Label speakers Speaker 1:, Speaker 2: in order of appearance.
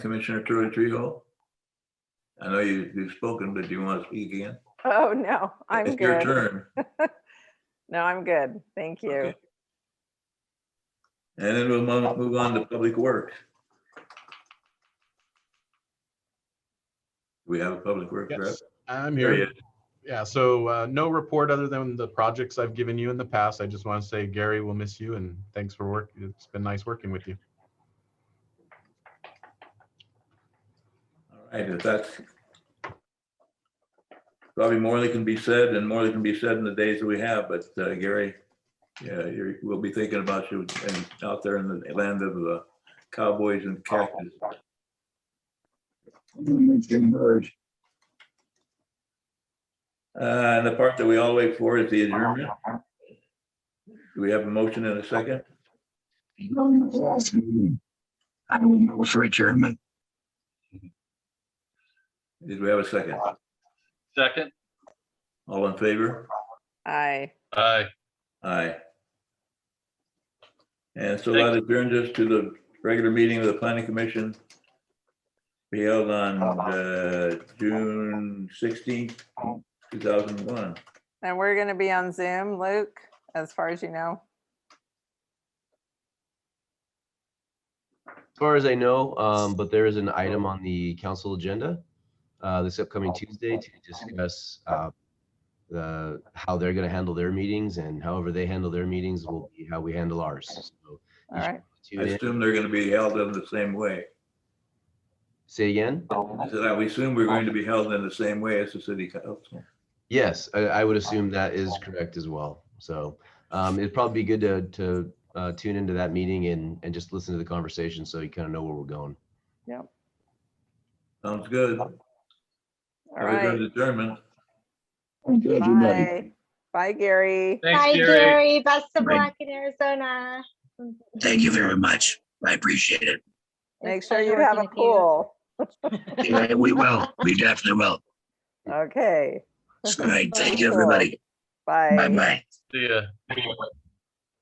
Speaker 1: Commissioner Troy Treehole? I know you, you've spoken, but do you want to speak again?
Speaker 2: Oh, no, I'm
Speaker 1: It's your
Speaker 2: good.
Speaker 1: turn.
Speaker 2: No, I'm good. Thank you.
Speaker 1: Okay. And then we'll mo- move on to Public Works. We have a Public Works rep.
Speaker 3: Yes, I'm
Speaker 1: There he
Speaker 3: here. Yeah, so uh, no report other than the projects I've given you in the past. I just want to say, Gary, we'll miss you and thanks for work. It's been nice working with you.
Speaker 1: All right, if that's probably more that can be said and more that can be said in the days that we have, but uh, Gary, yeah, you're, we'll be thinking about you and out there in the land of uh, cowboys and cactus. Uh, and the part that we all wait for is the adjournment. Do we have a motion in a second?
Speaker 4: I don't know for adjournment.
Speaker 1: Did we have a second?
Speaker 5: Second.
Speaker 1: All in favor?
Speaker 2: Aye.
Speaker 5: Aye.
Speaker 1: Aye. And so that adjourns us to the regular meeting of the planning commission. Be held on uh, June sixteenth, two thousand one.
Speaker 2: And we're going to be on Zoom, Luke, as far as you know.
Speaker 6: As far as I know, um, but there is an item
Speaker 2: Oh.
Speaker 6: on the council agenda, uh, this upcoming Tuesday to discuss, uh, the, how they're gonna handle their meetings and however they handle their meetings will be how we handle ours. So
Speaker 2: All
Speaker 1: I
Speaker 2: right.
Speaker 6: tune in.
Speaker 1: assume they're going to be held in the same way.
Speaker 6: Say again?
Speaker 1: I said, I would assume we're going to be held in the same way as the city council.
Speaker 6: Yes, I, I would assume that is correct as well. So, um, it'd probably be good to, to, uh, tune into that meeting and, and just listen to the conversation so you kind of know where we're going.
Speaker 1: Sounds good.
Speaker 2: All
Speaker 1: Have a good
Speaker 2: right.
Speaker 1: adjournment.
Speaker 4: Thank you, everybody.
Speaker 2: Bye. Bye, Gary.
Speaker 5: Thanks,
Speaker 7: Hi,
Speaker 5: Gary.
Speaker 7: Gary. Best of
Speaker 1: Thank-
Speaker 7: luck in Arizona.
Speaker 4: Thank you very much. I appreciate it.
Speaker 2: Make
Speaker 7: It's
Speaker 2: sure
Speaker 7: pleasure
Speaker 2: you have a
Speaker 7: working with you.
Speaker 2: pool.
Speaker 4: Yeah, We will. We definitely will.
Speaker 2: Okay.
Speaker 4: All right. Thank you, everybody.
Speaker 2: Bye.
Speaker 4: Bye-bye.
Speaker 5: See ya.